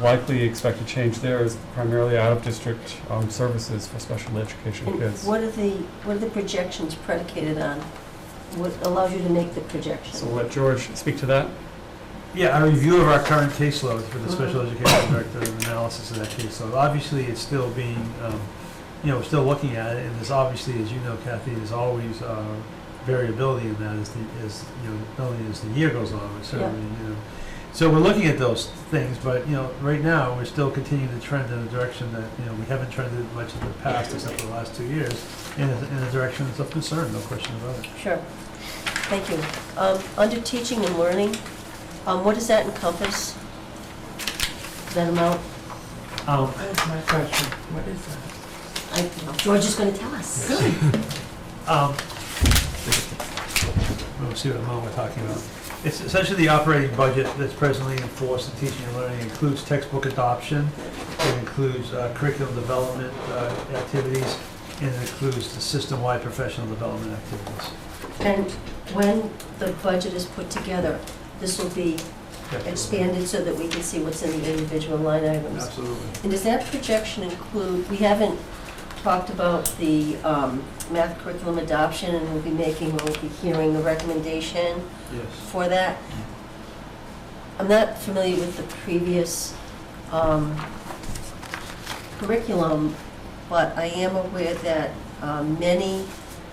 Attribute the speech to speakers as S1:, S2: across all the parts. S1: likely expected change there is primarily out-of-district um, services for special education
S2: And
S1: kids.
S2: what are the, what are the projections predicated on? What allows you to make the projection?
S1: So let George speak to that.
S3: Yeah, a review of our current caseload for the special education director, and analysis of that caseload. Obviously, it's still being, um, you know, we're still looking at it, and there's obviously, as you know, Kathy, there's always uh, variability in that as the, as, you know, not only as the year goes on, but certainly, you know. So we're looking at those things, but, you know, right now, we're still continuing to trend in a direction that, you know, we haven't trended much in the past, except for the last two years, in a, in a direction that's of concern, no question about it.
S2: Sure. Thank you. Um, Under teaching and learning, um, what does that encompass? That amount?
S3: Um,
S4: That's my question. What is that?
S2: I- George is going to tell us.
S3: Um, We'll see what amount we're talking about. It's essentially the operating budget that's presently enforced in teaching and learning. It includes textbook adoption, it includes uh, curriculum development uh, activities, and it includes the system-wide professional development activities.
S2: And when the budget is put together, this will be expanded so that we can see what's in the individual line items.
S3: Absolutely.
S2: And does that projection include, we haven't talked about the um, math curriculum adoption, and we'll be making, we'll be hearing a recommendation
S3: Yes.
S2: for that. I'm not familiar with the previous um, curriculum, but I am aware that um, many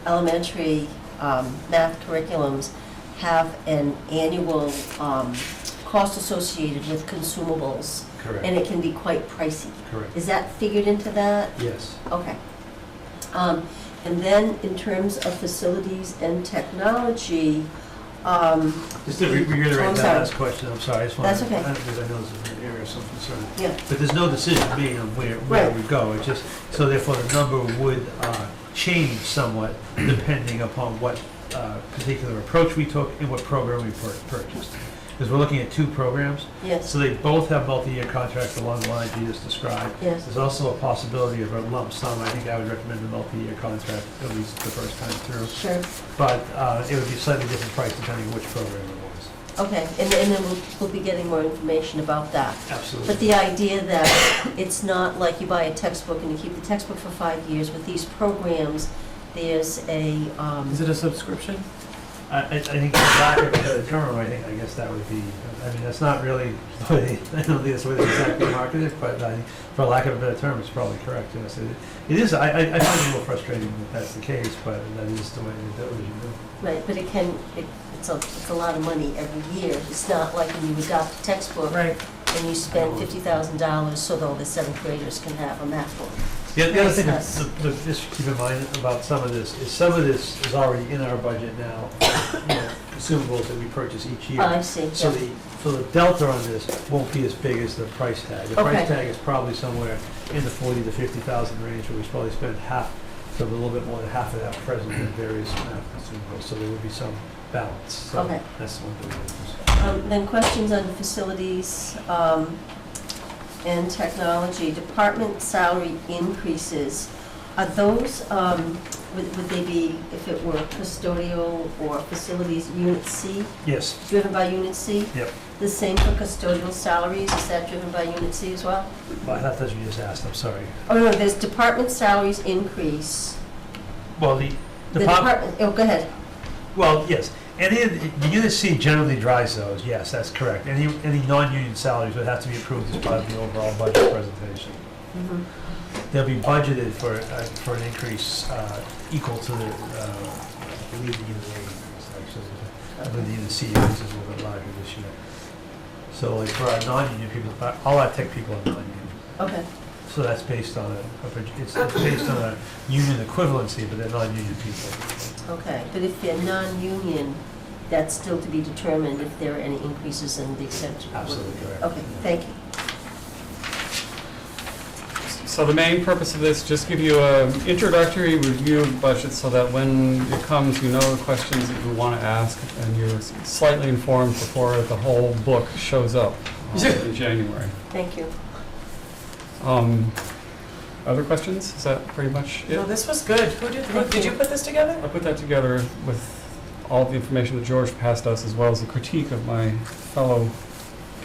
S2: elementary um, math curriculums have an annual um, cost associated with consumables, and
S3: Correct,
S2: it can be quite pricey.
S3: correct.
S2: Is that figured into that?
S3: Yes.
S2: Okay. Um, And then in terms of facilities and technology, um,
S3: Just to re- reiterate
S2: I'm
S3: that
S2: sorry.
S3: last question, I'm sorry, I just
S2: That's
S3: wanted,
S2: okay.
S3: because I know this is an area of some concern.
S2: yeah,
S3: But there's no decision made on where, where
S2: Right.
S3: we go, it's just, so therefore the number would uh, change somewhat depending upon what uh, particular approach we took and what program we pur- purchased. Because we're looking at two programs,
S2: yes,
S3: so they both have multi-year contracts along the lines you just described.
S2: yes.
S3: There's also a possibility of a lump sum, I think I would recommend a multi-year contract at least the first time through.
S2: Sure,
S3: But uh, it would be slightly different price depending on which program it was.
S2: okay, and and then we'll, we'll be getting more information about that. But
S3: Absolutely.
S2: the idea that it's not like you buy a textbook and you keep the textbook for five years, with these programs, there's a, um,
S4: Is it a subscription?
S3: I, I I think the lack of a better term, I think, I guess that would be, I mean, that's not really, the way- I don't think that's the way they exactly marketed it, but I, for lack of a better term, it's probably correct, yes. It- It is, I, I I find it a little frustrating that that's the case, but that is the way, that was, you know.
S2: right, but it can, it- it's a, it's a lot of money every year. It's not like when you adopt a textbook
S4: Right.
S2: and you spend fifty thousand dollars so that all the seventh graders can have a math book.
S3: The the other thing,
S2: Yes.
S3: that- the- the- just keep in mind about some of this, is some of this is already in our budget now, you know, consumables that we purchase each year.
S2: I see,
S3: So
S2: yeah,
S3: the, so the delta on this won't be as big as the price tag. The
S2: Okay.
S3: price tag is probably somewhere in the forty to fifty thousand range, where we probably spend half, so a little bit more than half of that present in various math consumables, so there would be some balance. So
S2: Okay.
S3: That's the one thing. that
S2: Um, Then questions on facilities um, and technology, department salary increases. Are those, um, would would they be, if it were custodial or facilities, unit C,
S3: is- Yes,
S2: driven by unit C?
S3: Yep.
S2: The same for custodial salaries, is that driven by unit C as well?
S3: well, that's what you just asked, I'm sorry.
S2: Oh, no, there's department salaries increase.
S3: Well, the,
S2: The
S3: the pop,
S2: department, oh, go ahead.
S3: well, yes, any, of the the unit C generally drives those, yes, that's correct. Any, any non-union salaries would have to be approved as part of the overall budget presentation.
S2: Mhm.
S3: They'll be budgeted for, uh, for an increase uh, equal to the, uh, I believe the E unit rate increase, actually. I
S2: Mm-hmm.
S3: believe the unit C increase is a little bit larger this year. So like for our non-union people, uh, all our tech people are non-union.
S2: Okay,
S3: So that's based on a, a proj- it's it's based on a union equivalency, but they're non-union people.
S2: okay. But if they're non-union, that's still to be determined if there are any increases in the exemption.
S3: Absolutely correct.
S2: Okay, thank you.
S1: So the main purpose of this, just give you an introductory review of the budget so that when it comes, you know the questions that you want to ask and you're slightly informed before the whole book shows up uh, in January.
S2: Thank you.
S1: Um, Other questions? Is that pretty much it?
S4: No, this was good. Who did, who,
S2: Thank
S4: did you
S2: you.
S4: put this together?
S1: I put that together with all the information that George passed us, as well as a critique of my fellow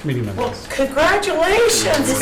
S1: committee members.
S4: Well, congratulations.